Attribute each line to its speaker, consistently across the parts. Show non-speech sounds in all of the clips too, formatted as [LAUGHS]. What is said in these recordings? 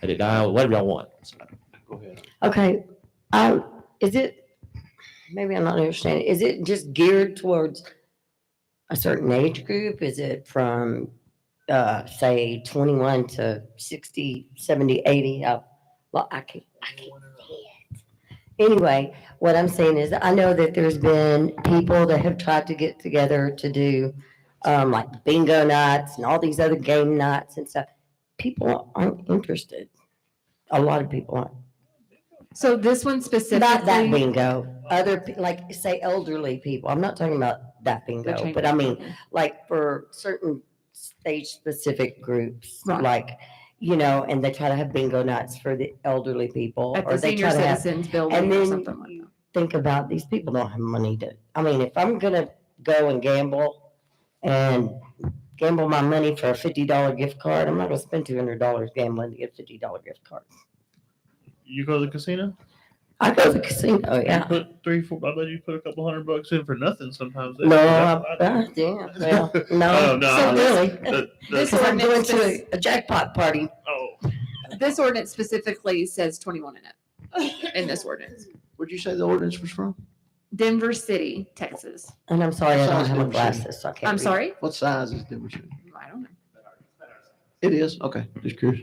Speaker 1: Head it down, whatever y'all want.
Speaker 2: Go ahead.
Speaker 3: Okay, I, is it, maybe I'm not understanding, is it just geared towards a certain age group? Is it from, uh, say twenty-one to 60, 70, 80? Uh, Well, I can't, I can't see it. Anyway, what I'm saying is, I know that there's been people that have tried to get together to do, um, like bingo nights and all these other game nights and stuff. People aren't interested. A lot of people aren't.
Speaker 4: So this one specifically.
Speaker 3: Not that bingo. Other, pe- like, say elderly people. I'm not talking about that
Speaker 4: They're
Speaker 3: bingo,
Speaker 4: changing
Speaker 3: but I mean,
Speaker 4: it.
Speaker 3: like for certain stage-specific groups,
Speaker 4: Right.
Speaker 3: like, you know, and they try to have bingo nights for the elderly people.
Speaker 4: At
Speaker 3: or
Speaker 4: the
Speaker 3: they
Speaker 4: senior
Speaker 3: try to have.
Speaker 4: citizens building
Speaker 3: and
Speaker 4: or
Speaker 3: then
Speaker 4: something like that.
Speaker 3: Think about, these people don't have money to, I mean, if I'm gonna go and gamble and gamble my money for a fifty-dollar gift card, I'm not gonna spend two hundred dollars gambling to get a fifty-dollar gift card.
Speaker 2: You go to the casino?
Speaker 3: I go to the casino,
Speaker 2: You
Speaker 3: yeah.
Speaker 2: put three, four. I bet you put a couple hundred bucks in for nothing sometimes.
Speaker 3: No,
Speaker 2: That's
Speaker 3: I-
Speaker 2: what I
Speaker 3: uh,
Speaker 2: do.
Speaker 3: yeah, well,
Speaker 2: [LAUGHS] Oh,
Speaker 3: no,
Speaker 2: no,
Speaker 3: not
Speaker 4: I'm-
Speaker 3: really.
Speaker 2: The- the-
Speaker 4: This
Speaker 3: Because I'm going
Speaker 4: ordinance
Speaker 3: to a jackpot party.
Speaker 2: oh,
Speaker 4: This ordinance specifically says twenty-one and up in this ordinance.
Speaker 5: Where'd you say the ordinance was from?
Speaker 4: Denver City, Texas.
Speaker 3: And I'm sorry, I don't
Speaker 5: Sounds
Speaker 3: have my
Speaker 5: good.
Speaker 3: glasses, so I can't.
Speaker 4: I'm
Speaker 3: read.
Speaker 4: sorry?
Speaker 5: What size is Denver City?
Speaker 4: I don't know.
Speaker 5: It is, okay, just curious.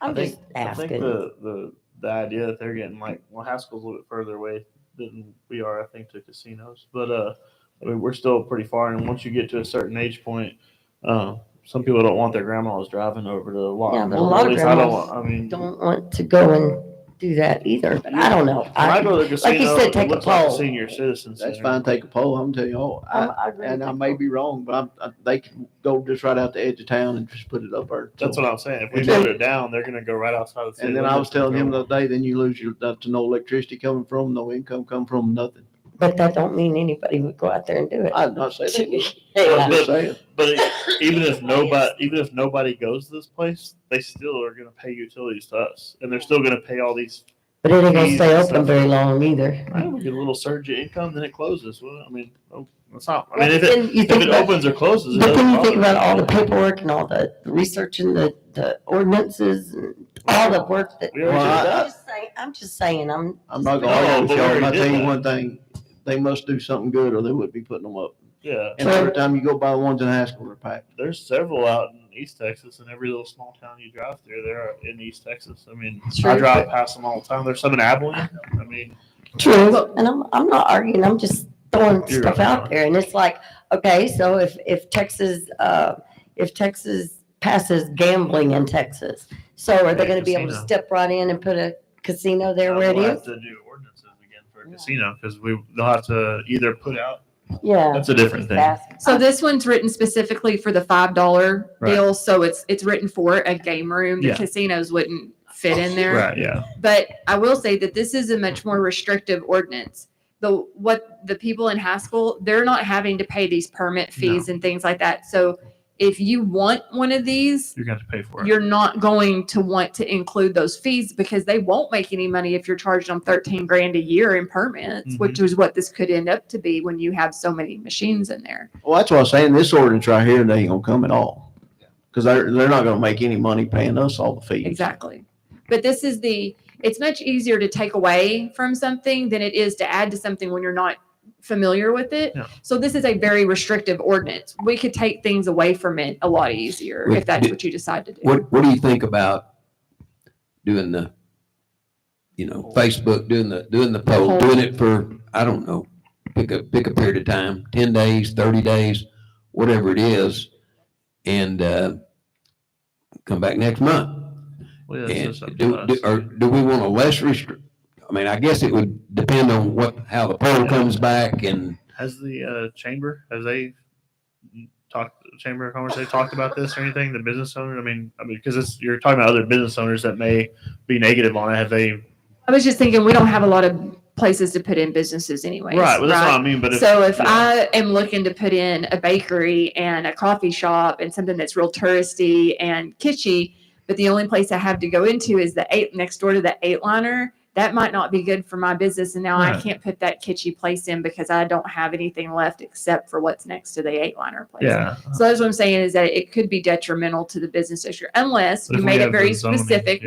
Speaker 3: I'm
Speaker 2: I think-
Speaker 3: just
Speaker 2: I think
Speaker 3: asking.
Speaker 2: the, the the idea that they're getting like well, Haskell's a little bit further away than we are, I think, to casinos. But uh, I mean, we're still pretty far. And once you get to a certain age point, uh, some people don't want their grandmas driving over to the lot.
Speaker 3: Yeah, but a
Speaker 2: Well,
Speaker 3: lot
Speaker 2: at
Speaker 3: of
Speaker 2: least I don't.
Speaker 3: grandmas
Speaker 2: want- I mean,
Speaker 3: Don't want to go and do that either, but I don't know.
Speaker 2: when I,
Speaker 3: I,
Speaker 2: go to the
Speaker 3: like you
Speaker 2: casino,
Speaker 3: said,
Speaker 2: it
Speaker 3: take a
Speaker 2: looks like
Speaker 3: poll.
Speaker 2: senior citizens.
Speaker 5: That's fine, take a poll, I'm telling you all.
Speaker 3: I,
Speaker 5: I-
Speaker 3: I agree.
Speaker 5: And
Speaker 3: with
Speaker 5: I
Speaker 3: you.
Speaker 5: may be wrong, but I'm, I- they can go just right out the edge of town and just put it up there.
Speaker 2: That's what I'm saying. If we
Speaker 5: And
Speaker 2: vote
Speaker 5: then-
Speaker 2: it down, they're gonna go right outside the city.
Speaker 5: And then I was
Speaker 2: limits
Speaker 5: telling
Speaker 2: go-
Speaker 5: him the other day, then you lose your, up to no electricity coming from, no income coming from, nothing.
Speaker 3: But that don't mean anybody would go out there and do it.
Speaker 5: I'd not say that.
Speaker 3: [LAUGHS] Yeah.
Speaker 5: I'm just saying.
Speaker 2: But [LAUGHS] it- even if nobody, even if nobody goes to this place, they still are gonna pay utilities to us, and they're still gonna pay all these.
Speaker 3: But it ain't gonna stay
Speaker 2: Jesus.
Speaker 3: open very long either.
Speaker 2: I would get a little surge of income, then it closes. Well, I mean, oh, that's not. I
Speaker 3: Well,
Speaker 2: mean, if it
Speaker 3: then you
Speaker 2: if
Speaker 3: think
Speaker 2: it
Speaker 3: about-
Speaker 2: opens or closes, it
Speaker 3: But then you think
Speaker 2: doesn't
Speaker 3: about all
Speaker 2: bother
Speaker 3: the
Speaker 2: me.
Speaker 3: paperwork and all the research and the, the ordinances and all the work that.
Speaker 2: We already
Speaker 5: Well,
Speaker 2: did
Speaker 5: I-
Speaker 3: I'm
Speaker 2: that.
Speaker 3: just saying, I'm just saying, I'm.
Speaker 5: I'm not gonna
Speaker 2: No,
Speaker 5: argue with
Speaker 2: but we
Speaker 5: y'all, but
Speaker 2: already
Speaker 5: I tell
Speaker 2: did
Speaker 5: you
Speaker 2: that.
Speaker 5: one thing, they must do something good or they would be putting them up.
Speaker 2: Yeah,
Speaker 5: And every time you go by the ones in high school, they're packed.
Speaker 2: there's several out in East Texas, and every little small town you drive through, they're in East Texas. I mean, I
Speaker 4: True.
Speaker 2: drive past them all the time. There's some in Abilene. I mean.
Speaker 3: True, and I'm, I'm not arguing, I'm just throwing
Speaker 2: You're
Speaker 3: stuff
Speaker 2: right.
Speaker 3: out there, and it's like, okay, so if, if Texas, uh, if Texas passes gambling in Texas, so are they
Speaker 2: Yeah,
Speaker 3: gonna be able to
Speaker 2: casino.
Speaker 3: step right in and put a casino there
Speaker 2: Uh,
Speaker 3: where it
Speaker 2: we'll
Speaker 3: is?
Speaker 2: have to do ordinances again for a
Speaker 3: Yeah.
Speaker 2: casino because we they'll have to either put out.
Speaker 3: Yeah.
Speaker 2: That's a different thing.
Speaker 4: So this one's written specifically for the five dollar
Speaker 2: Right.
Speaker 4: deal, so it's, it's written for a game room. The
Speaker 2: Yeah.
Speaker 4: casinos wouldn't fit in there.
Speaker 2: Right. Yeah.
Speaker 4: But I will say that this is a much more restrictive ordinance. The, what the people in high school, they're not having to pay these permit fees and things like that. So if you want one of these,
Speaker 2: You're going to pay for it.
Speaker 4: you're not going to want to include those fees because they won't make any money if you're charging them thirteen grand a year in permits, which is what this could end up to be when you have so many machines in there.
Speaker 5: Well, that's why I'm saying this ordinance right here, they ain't gonna come at all. Cause they're, they're not gonna make any money paying us all the fees.
Speaker 4: Exactly. But this is the, it's much easier to take away from something than it is to add to something when you're not familiar with it.
Speaker 2: Yeah.
Speaker 4: So this is a very restrictive ordinance. We could take things away from it a lot easier if that's what you decide to do.
Speaker 6: What, what do you think about doing the, you know, Facebook, doing the, doing the poll,
Speaker 4: Poll.
Speaker 6: doing it for, I don't know, pick a, pick a period of time, ten days, thirty days, whatever it is, and, uh, come back next month?
Speaker 2: Well, yeah, it's
Speaker 6: And
Speaker 2: just up to
Speaker 6: do,
Speaker 2: us.
Speaker 6: do, or do we want a less restrict, I mean, I guess it would depend on what, how the poll comes back and,
Speaker 2: Has the uh, chamber has they talked chamber of commerce they talked about this or anything? The business owner. I mean, I mean, because it's you're talking about other business owners that may be negative on it. Have they?
Speaker 4: I was just thinking, we don't have a lot of places to put in businesses anyways.
Speaker 2: right. Well, that's what I mean. But if,
Speaker 4: So if
Speaker 2: yeah.
Speaker 4: I am looking to put in a bakery and a coffee shop and something that's real touristy and kitschy, but the only place I have to go into is the eight next door to the eight liner, that might not be good for my business. And now I
Speaker 1: Right.
Speaker 4: can't put that kitschy place in because I don't have anything left except for what's next to the eight liner place.
Speaker 1: Yeah.
Speaker 4: So that's what I'm saying is that it could be detrimental to the business issue unless
Speaker 1: But
Speaker 4: you
Speaker 1: if we
Speaker 4: made it
Speaker 1: have
Speaker 4: very
Speaker 1: the zoning,
Speaker 4: specific,